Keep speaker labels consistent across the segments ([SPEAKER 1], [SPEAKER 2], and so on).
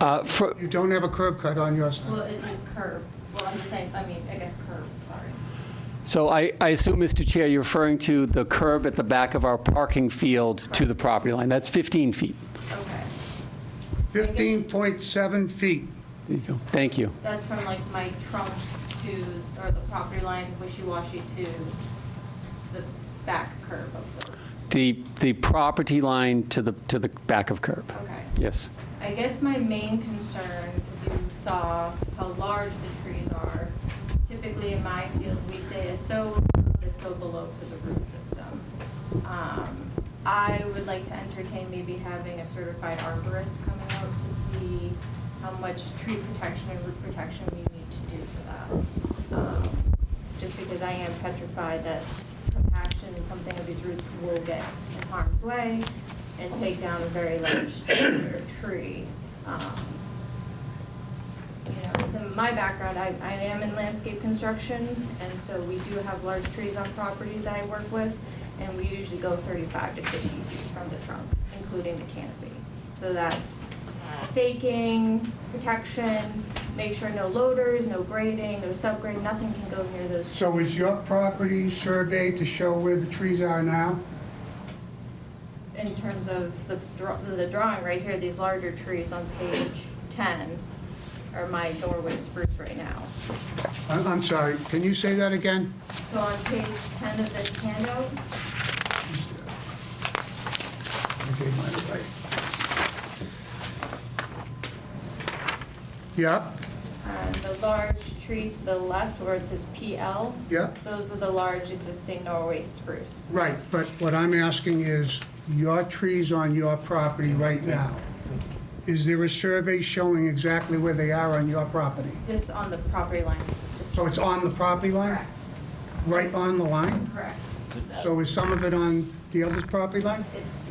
[SPEAKER 1] Uh, for-
[SPEAKER 2] You don't have a curb cut on your side.
[SPEAKER 3] Well, it says curb. Well, I'm just saying, I mean, I guess curb, sorry.
[SPEAKER 1] So I I assume, Mr. Chair, you're referring to the curb at the back of our parking field to the property line. That's 15 feet.
[SPEAKER 3] Okay.
[SPEAKER 2] 15.7 feet.
[SPEAKER 1] There you go. Thank you.
[SPEAKER 3] That's from like my trunk to, or the property line, wishy-washy to the back curb of the,
[SPEAKER 1] The the property line to the to the back of curb.
[SPEAKER 3] okay.
[SPEAKER 1] Yes.
[SPEAKER 3] I guess my main concern is you saw how large the trees are. Typically in my field, we say is so above is so below for the root system. Um, I would like to entertain maybe having a certified arborist coming out to see how much tree protection and root protection we need to do for that. Um, Just because I am petrified that compaction and something of these roots will get in harm's way and take down a very large structure or tree. Um, You know, it's in my background, I, I am in landscape construction, and so we do have large trees on properties that I work with, and we usually go thirty-five to fifty feet from the trunk, including the canopy. So that's staking, protection, make sure no loaders, no grading, no subgrade, nothing can go near those.
[SPEAKER 2] So is your property surveyed to show where the trees are now?
[SPEAKER 3] in terms of the, str- the drawing right here, these larger trees on page 10 are my Norway spruce right now.
[SPEAKER 2] I- I'm sorry, can you say that again?
[SPEAKER 3] So on page 10 of this handout,
[SPEAKER 2] Okay, my right. Yeah,
[SPEAKER 3] um, the large tree to the left where it says PL,
[SPEAKER 2] yeah,
[SPEAKER 3] those are the large existing Norway spruce.
[SPEAKER 2] right, but what I'm asking is, your trees on your property right now, is there a survey showing exactly where they are on your property?
[SPEAKER 3] Just on the property line, just.
[SPEAKER 2] So it's on the property line?
[SPEAKER 3] Correct,
[SPEAKER 2] Right on the line?
[SPEAKER 3] correct.
[SPEAKER 2] So is some of it on the other's property line?
[SPEAKER 3] It's,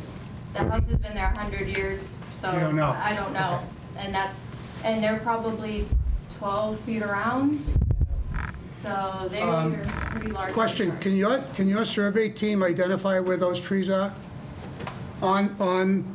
[SPEAKER 3] the house has been there 100 years, so.
[SPEAKER 2] You don't know.
[SPEAKER 3] I don't know. And that's, and they're probably 12 feet around, so
[SPEAKER 2] Um,
[SPEAKER 3] they're pretty large.
[SPEAKER 2] Question, can your, can your survey team identify where those trees are? On, on,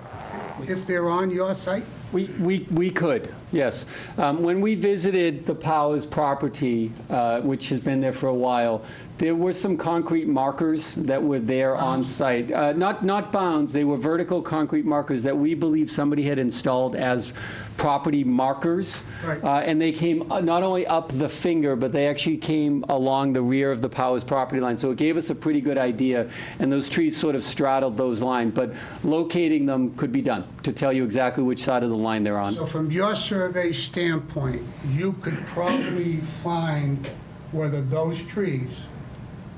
[SPEAKER 2] if they're on your site?
[SPEAKER 1] We, we, we could, yes. Um, When we visited the Powers property, uh, which has been there for a while, there were some concrete markers that were there on site. Uh, Not, not bounds, they were vertical concrete markers that we believe somebody had installed as property markers.
[SPEAKER 2] Right.
[SPEAKER 1] Uh, And they came uh, not only up the finger, but they actually came along the rear of the Powers property line. So it gave us a pretty good idea, and those trees sort of straddled those lines. But locating them could be done, to tell you exactly which side of the line they're on.
[SPEAKER 2] So from your survey standpoint, you could probably find whether those trees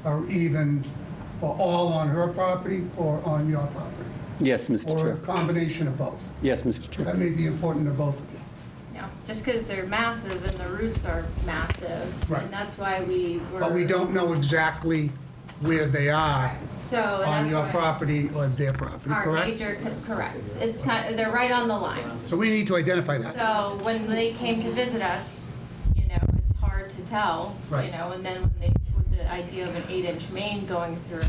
[SPEAKER 2] are even, or all on her property or on your property?
[SPEAKER 1] Yes, Mr.
[SPEAKER 2] Or a
[SPEAKER 1] Chair.
[SPEAKER 2] combination of both?
[SPEAKER 1] Yes, Mr. Chair.
[SPEAKER 2] That may be important to both of you.
[SPEAKER 3] Yeah, just because they're massive and the roots are massive.
[SPEAKER 2] Right.
[SPEAKER 3] And that's why we were.
[SPEAKER 2] But we don't know exactly where they are
[SPEAKER 3] So. and
[SPEAKER 2] on
[SPEAKER 3] that's
[SPEAKER 2] your
[SPEAKER 3] why
[SPEAKER 2] property or their property,
[SPEAKER 3] Our
[SPEAKER 2] correct?
[SPEAKER 3] major, correct. It's kind, they're right on the line.
[SPEAKER 2] So we need to identify that.
[SPEAKER 3] So when they came to visit us, you know, it's hard to tell, you
[SPEAKER 2] Right.
[SPEAKER 3] know, and then when they, with the idea of an eight-inch main going through,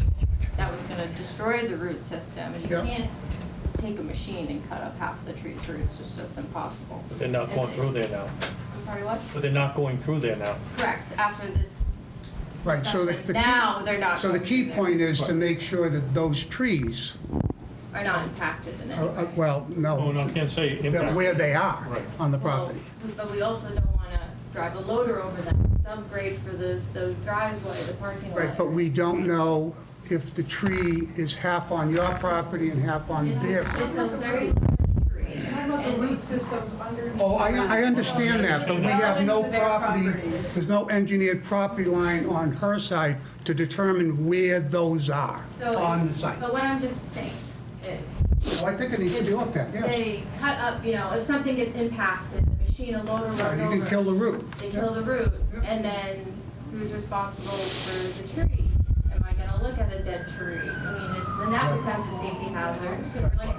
[SPEAKER 3] that was gonna destroy the root system. You
[SPEAKER 2] Yeah.
[SPEAKER 3] can't take a machine and cut up half the tree's roots, it's just impossible.
[SPEAKER 4] They're not going through there now,
[SPEAKER 3] I'm sorry, what?
[SPEAKER 4] but they're not going through there now.
[SPEAKER 3] Correct, after this
[SPEAKER 2] Right, so the,
[SPEAKER 3] discussion,
[SPEAKER 2] the
[SPEAKER 3] now
[SPEAKER 2] key,
[SPEAKER 3] they're not.
[SPEAKER 2] so the
[SPEAKER 3] going
[SPEAKER 2] key
[SPEAKER 3] through there,
[SPEAKER 2] point is to make sure that those trees,
[SPEAKER 3] Are not impacted in
[SPEAKER 2] are-
[SPEAKER 3] any
[SPEAKER 2] are-
[SPEAKER 3] way.
[SPEAKER 2] well,
[SPEAKER 4] Oh, no,
[SPEAKER 2] no,
[SPEAKER 4] I can't say
[SPEAKER 2] that
[SPEAKER 4] impact.
[SPEAKER 2] where they are
[SPEAKER 4] Right.
[SPEAKER 2] on the property.
[SPEAKER 3] Well, But we also don't wanna drive a loader over them, subgrade for the, the driveway, the parking lot.
[SPEAKER 2] Right, but we don't know if the tree is half on your property and half on their.
[SPEAKER 3] It's a very large tree.
[SPEAKER 5] Talking about the root systems underneath.
[SPEAKER 2] Oh, I, I understand that, but we have no property, there's no engineered property line on her side to determine where those are
[SPEAKER 3] So-
[SPEAKER 2] on the site.
[SPEAKER 3] But what I'm just saying is,
[SPEAKER 2] Well, I think it needs to be looked at, yeah.
[SPEAKER 3] they cut up, you know, if something gets impacted, the machine, a loader runs
[SPEAKER 2] Right,
[SPEAKER 3] over.
[SPEAKER 2] You can kill the root.
[SPEAKER 3] They kill the root, and then who's responsible for the tree? Am I gonna look at a dead tree? I mean, it- then that becomes a safety hazard, 'cause we're like,